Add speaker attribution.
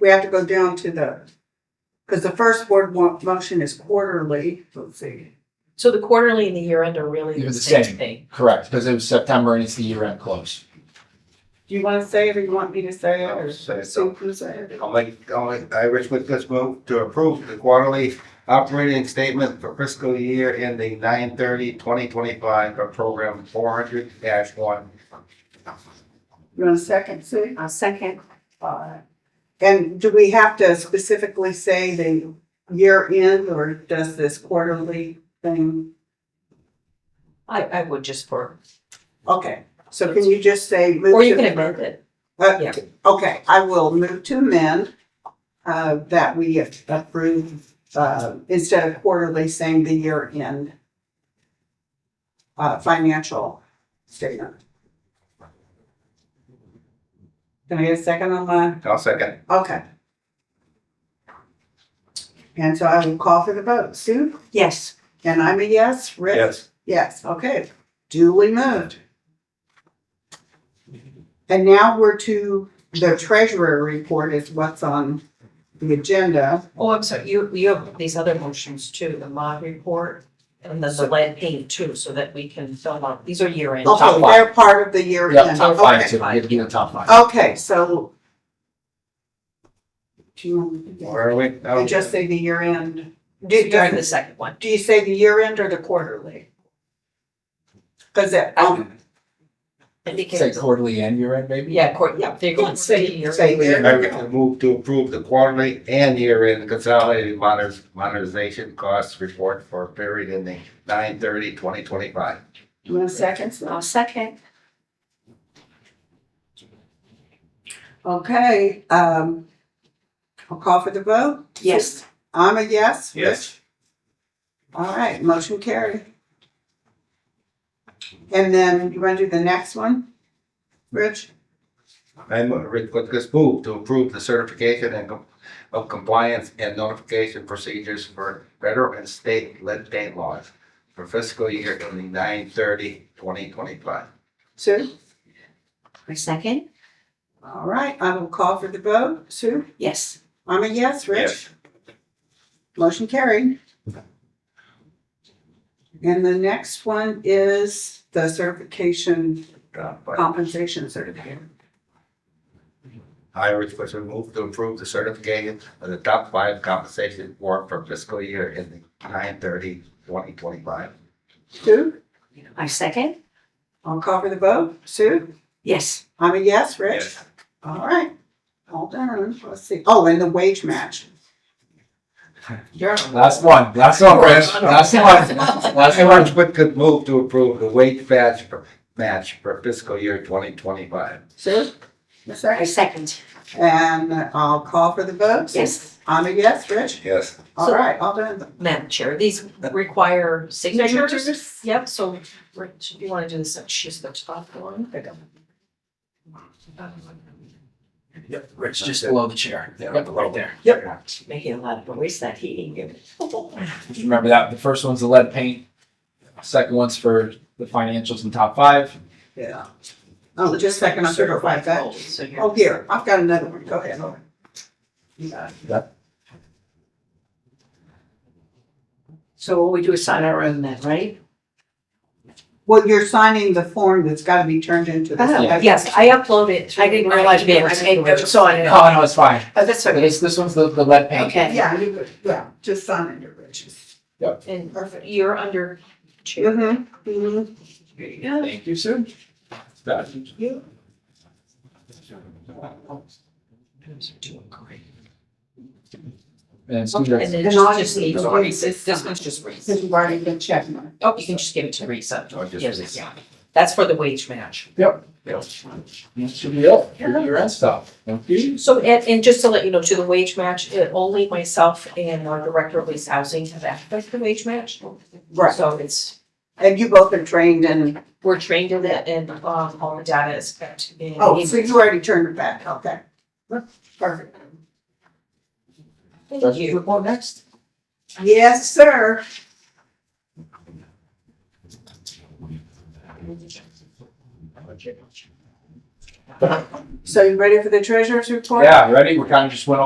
Speaker 1: we have to go down to the, because the first word mo- motion is quarterly. Let's see.
Speaker 2: So the quarterly and the year end are really
Speaker 3: They're
Speaker 2: the
Speaker 3: the
Speaker 2: same
Speaker 3: same.
Speaker 2: thing.
Speaker 3: Correct, because it was September and it's the year end close.
Speaker 1: Do you want to say it or you want me to say it or?
Speaker 4: I'll say it.
Speaker 1: Sue can say it?
Speaker 4: I'll make, I'll make, I, Rich Whitcutt's move to approve the quarterly operating statement for fiscal year ending 2025 for program four hundred one.
Speaker 1: You want a second, Sue?
Speaker 5: I'll second.
Speaker 1: Alright. And do we have to specifically say the year end or does this quarterly thing?
Speaker 2: I, I would just for,
Speaker 1: Okay, so can you just say? move
Speaker 2: or you
Speaker 1: to-
Speaker 2: can amend it.
Speaker 1: Uh,
Speaker 2: Yeah.
Speaker 1: Okay, I will move to amend uh, that we approve, uh, instead of quarterly, saying the year end uh, financial statement. Can I get a second on that?
Speaker 4: I'll second.
Speaker 1: Okay. And so I will call for the vote. Sue?
Speaker 5: Yes.
Speaker 1: And I'm a yes. Rick? Yes, okay, duly moved. And now we're to the treasurer report is what's on the agenda.
Speaker 2: Oh, I'm sorry, you, you have these other motions too, the mod report and then the lead paint too, so that we can fill out, these are year end.
Speaker 1: Okay,
Speaker 3: five.
Speaker 1: they're part of the year
Speaker 3: Yeah,
Speaker 1: end.
Speaker 3: top five
Speaker 1: Okay,
Speaker 3: too, we have to get a top five.
Speaker 1: okay, so. Do you want me to
Speaker 4: Where are we?
Speaker 1: do-
Speaker 4: Oh,
Speaker 1: you just say the year end?
Speaker 2: Do, during the second one.
Speaker 1: Do you say the year end or the quarterly? Cause that, um,
Speaker 3: Say
Speaker 2: Indicate,
Speaker 3: quarterly and year end maybe?
Speaker 2: yeah, court, yeah, they're going to say year
Speaker 1: Say
Speaker 2: end.
Speaker 1: year.
Speaker 4: I make a move to approve the quarterly and year-end consolidated modern- modernization costs report for period ending 2025.
Speaker 1: you want a second? Sue?
Speaker 5: I'll second.
Speaker 1: Okay, um, I'll call for the vote.
Speaker 5: Yes.
Speaker 1: I'm a yes. Rich? All right, motion carried. And then you want to do the next one? Rich?
Speaker 4: I'm Rick Whitcutt's move to approve the certification and com- of compliance and notification procedures for federal and state lead paint laws for fiscal year ending 2025.
Speaker 1: Sue?
Speaker 5: I second.
Speaker 1: All right, I will call for the vote. Sue?
Speaker 5: Yes.
Speaker 1: I'm a yes, Rich? Motion carried. And the next one is the certification,
Speaker 4: Uh, but
Speaker 1: Oh. compensation certificate.
Speaker 4: I, Rick Whitcutt, move to approve the certification of the top five compensation report for fiscal year ending 2025.
Speaker 1: Sue?
Speaker 5: I second.
Speaker 1: I'll call for the vote. Sue?
Speaker 5: Yes.
Speaker 1: I'm a yes, Rich?
Speaker 4: Yes.
Speaker 1: All right, all done. Let's see. Oh, and the wage match.
Speaker 2: You're on.
Speaker 3: Last one, last one, Chris, last one, last
Speaker 4: I,
Speaker 3: one.
Speaker 4: Rick Whitcutt, move to approve the wage match for, match for fiscal year twenty twenty-five.
Speaker 1: Sue? A second?
Speaker 5: I second.
Speaker 1: And I'll call for the vote.
Speaker 5: Yes.
Speaker 1: I'm a yes, Rich.
Speaker 4: Yes.
Speaker 1: All right, all done.
Speaker 2: Madam Chair, these require signatures. Yep, so Rich, if you want to do this, she's the top one. There you go.
Speaker 3: Yep, Rich, just below the chair.
Speaker 4: Yeah,
Speaker 3: Yep,
Speaker 4: below.
Speaker 3: right there.
Speaker 5: Making a lot of noise that he didn't give it.
Speaker 3: Just remember that, the first one's the lead paint, second one's for the financials and top five,
Speaker 1: Yeah. Oh, just a second, I'm sure about that.
Speaker 2: So you're-
Speaker 1: Oh, here, I've got another one. Go ahead. You got it.
Speaker 5: So what we do is sign our own then, right?
Speaker 1: Well, you're signing the form that's gotta be turned into the.
Speaker 5: Oh,
Speaker 1: second.
Speaker 2: Uh, Yes, I uploaded.
Speaker 5: I didn't realize we were taking notes on it.
Speaker 3: No, no, it's fine.
Speaker 5: Oh, that's
Speaker 3: This, this one's the, the lead paint.
Speaker 5: Okay.
Speaker 1: Yeah, you would, yeah, just sign it, Rich.
Speaker 2: And you're under chair.
Speaker 1: Mm-hmm, mm-hmm.
Speaker 3: Thank you, sir.
Speaker 1: You.
Speaker 3: And
Speaker 2: And
Speaker 3: students,
Speaker 1: And
Speaker 2: then
Speaker 1: I
Speaker 2: just
Speaker 1: just-
Speaker 2: needs Reese's, this one's just
Speaker 1: Since
Speaker 2: Reese's.
Speaker 1: you've already been checking it.
Speaker 2: Oh, you can just give it to Reese.
Speaker 4: Or just Reese.
Speaker 2: Yes, yeah. That's for the wage match.
Speaker 3: that should be it, for your end stuff. Thank you.
Speaker 2: So, and, and just to let you know, to the wage match, it- only myself and our director of lease housing have access to the wage match.
Speaker 1: Right,
Speaker 2: So it's,
Speaker 1: and you both are trained in,
Speaker 2: we're trained in it and, um, all the data is kept in.
Speaker 1: oh, so you already turned it back, okay. Perfect.
Speaker 2: Thank you.
Speaker 3: Well, next.
Speaker 1: Yes, sir. So you ready for the treasurer's report?
Speaker 3: Yeah, ready? We kind of just went over